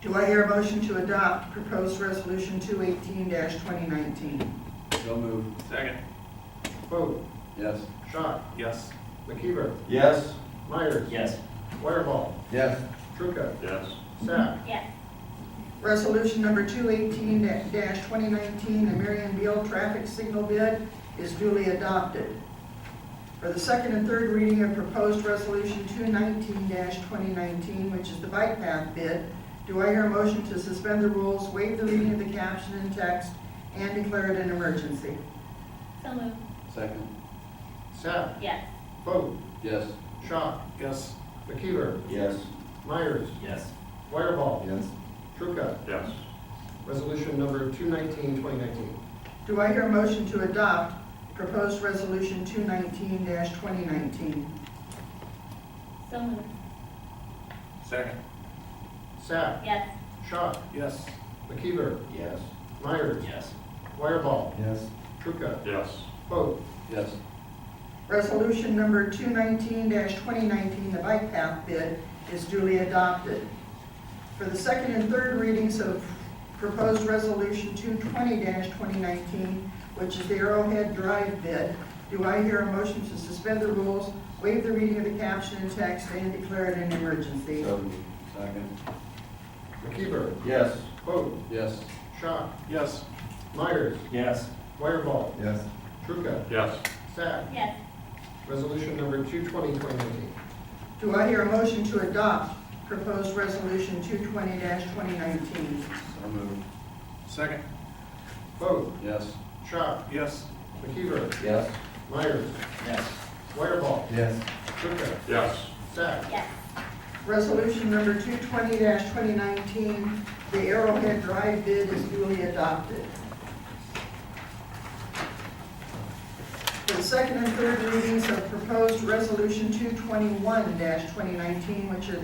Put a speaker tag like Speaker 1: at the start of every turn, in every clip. Speaker 1: Do I hear a motion to adopt proposed resolution two eighteen twenty nineteen?
Speaker 2: So moved.
Speaker 3: Second.
Speaker 4: Vote.
Speaker 2: Yes.
Speaker 4: Schott.
Speaker 3: Yes.
Speaker 4: McKeever.
Speaker 2: Yes.
Speaker 4: Myers.
Speaker 3: Yes.
Speaker 4: Wireball.
Speaker 2: Yes.
Speaker 4: Trucca.
Speaker 3: Yes.
Speaker 4: Sack.
Speaker 5: yes,
Speaker 1: Resolution number two eighteen twenty nineteen, the Marion Beal traffic signal bid is duly adopted. For the second and third reading of proposed resolution two nineteen twenty nineteen, which is the bike path bid, do I hear a motion to suspend the rules, waive the reading of the caption and text, and declare it an emergency?
Speaker 5: so moved,
Speaker 2: Second.
Speaker 4: Sack.
Speaker 5: yes,
Speaker 4: Vote.
Speaker 2: Yes.
Speaker 4: Schott.
Speaker 3: Yes.
Speaker 4: McKeever.
Speaker 2: Yes.
Speaker 4: Myers.
Speaker 3: Yes.
Speaker 4: Wireball.
Speaker 2: Yes.
Speaker 4: Trucca.
Speaker 3: Yes.
Speaker 4: Resolution number 219, 2019.
Speaker 1: Do I hear a motion to adopt proposed resolution two nineteen twenty nineteen?
Speaker 5: so moved,
Speaker 3: Second.
Speaker 4: Sack.
Speaker 5: yes,
Speaker 4: Schott.
Speaker 3: Yes.
Speaker 4: McKeever.
Speaker 2: Yes.
Speaker 4: Myers.
Speaker 3: Yes.
Speaker 4: Wireball.
Speaker 2: Yes.
Speaker 4: Trucca.
Speaker 3: Yes.
Speaker 4: Vote.
Speaker 2: Yes.
Speaker 1: Resolution number two nineteen twenty nineteen, the bike path bid, is duly adopted. For the second and third readings of proposed resolution two twenty twenty nineteen, which is the Arrowhead Drive bid, do I hear a motion to suspend the rules, waive the reading of the caption and text, and declare it an emergency?
Speaker 2: So moved. Second.
Speaker 4: McKeever.
Speaker 2: Yes.
Speaker 4: Vote.
Speaker 2: Yes.
Speaker 4: Schott.
Speaker 3: Yes.
Speaker 4: Myers.
Speaker 3: Yes.
Speaker 4: Wireball.
Speaker 2: Yes.
Speaker 4: Trucca.
Speaker 3: Yes.
Speaker 4: Sack.
Speaker 5: yes,
Speaker 4: Resolution number 220, 2019.
Speaker 1: Do I hear a motion to adopt proposed resolution two twenty twenty nineteen?
Speaker 2: So moved.
Speaker 3: Second.
Speaker 4: Vote.
Speaker 2: Yes.
Speaker 4: Schott.
Speaker 3: Yes.
Speaker 4: McKeever.
Speaker 2: Yes.
Speaker 4: Myers.
Speaker 3: Yes.
Speaker 4: Wireball.
Speaker 2: Yes.
Speaker 4: Trucca.
Speaker 3: Yes.
Speaker 4: Sack.
Speaker 5: yes,
Speaker 1: Resolution number 220-2019, the Arrowhead Drive bid is duly adopted. For the second and third readings of proposed resolution 221-2019, which is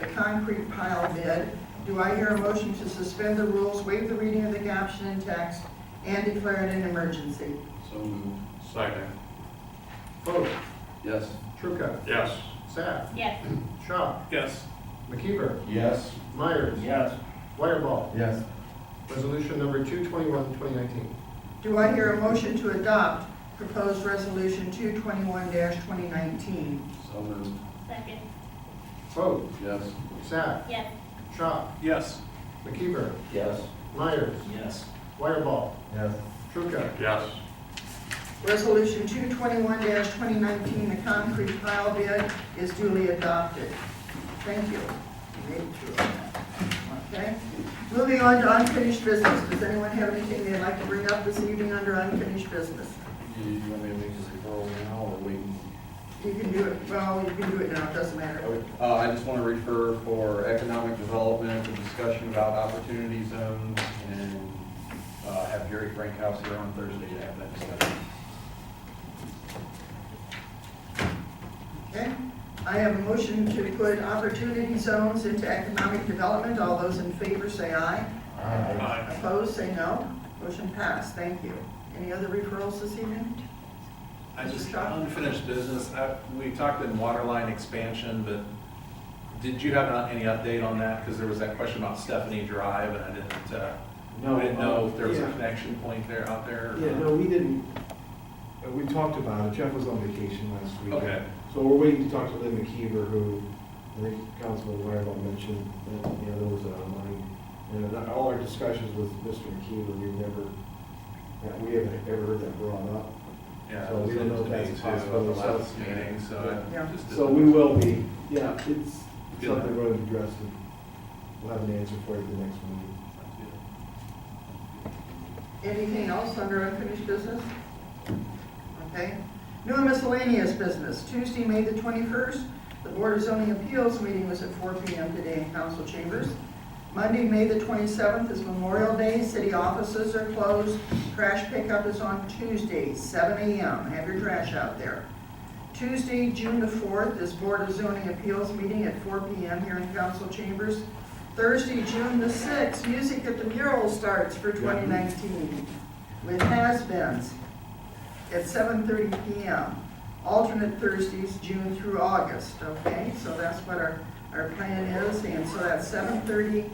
Speaker 1: the concrete pile bid, do I hear a motion to suspend the rules, waive the reading of the caption and text, and declare it an emergency?
Speaker 2: So moved.
Speaker 3: Second.
Speaker 4: Vote.
Speaker 2: Yes.
Speaker 4: Trucca.
Speaker 3: Yes.
Speaker 4: Sack.
Speaker 5: yes,
Speaker 4: Schott.
Speaker 3: Yes.
Speaker 4: McKeever.
Speaker 2: Yes.
Speaker 4: Myers.
Speaker 3: Yes.
Speaker 4: Wireball.
Speaker 2: Yes.
Speaker 4: Resolution number 221, 2019.
Speaker 1: Do I hear a motion to adopt proposed resolution 221-2019?
Speaker 2: So moved.
Speaker 5: second,
Speaker 4: Vote.
Speaker 2: Yes.
Speaker 4: Sack.
Speaker 5: yes,
Speaker 4: Schott.
Speaker 3: Yes.
Speaker 4: McKeever.
Speaker 2: Yes.
Speaker 4: Myers.
Speaker 3: Yes.
Speaker 4: Wireball.
Speaker 2: Yes.
Speaker 4: Trucca.
Speaker 3: Yes.
Speaker 1: Resolution 221-2019, the concrete pile bid is duly adopted. Thank you. Made it through. Okay. Moving on to unfinished business. Does anyone have anything they'd like to bring up this evening under unfinished business?
Speaker 2: Do you want me to make this referral now or wait?
Speaker 1: You can do it, well, you can do it now, it doesn't matter.
Speaker 2: Uh, I just want to refer for economic development, the discussion about opportunity zones, and, uh, have Jerry Frankhouse here on Thursday to have that discussion.
Speaker 1: Okay. I have a motion to put opportunity zones into economic development. All those in favor say aye.
Speaker 3: Aye.
Speaker 1: Opposed, say no. Motion passed. Thank you. Any other referrals this evening?
Speaker 6: I just, unfinished business, I- we talked in waterline expansion, but did you have any update on that? Because there was that question about Stephanie Drive, and I didn't, uh, I didn't know if there was a
Speaker 7: yeah.
Speaker 6: connection point there out there. or
Speaker 7: Yeah,
Speaker 6: not.
Speaker 7: no, we didn't, uh, we talked about it, Jeff was on vacation last week.
Speaker 6: Okay.
Speaker 7: So we're waiting to talk to Lynn McKeever, who, I think Councilman Wireball mentioned, that, you know, there was a line. And that- all our discussions with Mr. McKeever, we never, that we haven't ever heard that brought up.
Speaker 6: Yeah.
Speaker 7: So
Speaker 6: it
Speaker 7: we don't know if
Speaker 6: was
Speaker 7: that's
Speaker 6: debated, too,
Speaker 7: possible,
Speaker 6: at the
Speaker 7: so-
Speaker 6: last meeting, so I
Speaker 1: Yeah.
Speaker 6: just.
Speaker 7: So
Speaker 6: didn't-
Speaker 7: we will be, yeah, it's
Speaker 6: Good.
Speaker 7: something we're gonna address, and we'll have an answer for you at the next meeting.
Speaker 1: Anything else under unfinished business? Okay. New and miscellaneous business. Tuesday, May the 21st, the Board of Zoning Appeals meeting was at 4 PM today in council chambers. Monday, May the 27th is Memorial Day. City offices are closed. Trash pickup is on Tuesday, 7 AM. Have your trash out there. Tuesday, June the 4th, is Board of Zoning Appeals meeting at 4 PM here in council chambers. Thursday, June the 6th, Music at the Mural starts for 2019 with has-beens at 7:30 PM. Alternate Thursdays, June through August, okay? So that's what our, our plan is, and so that's 7:30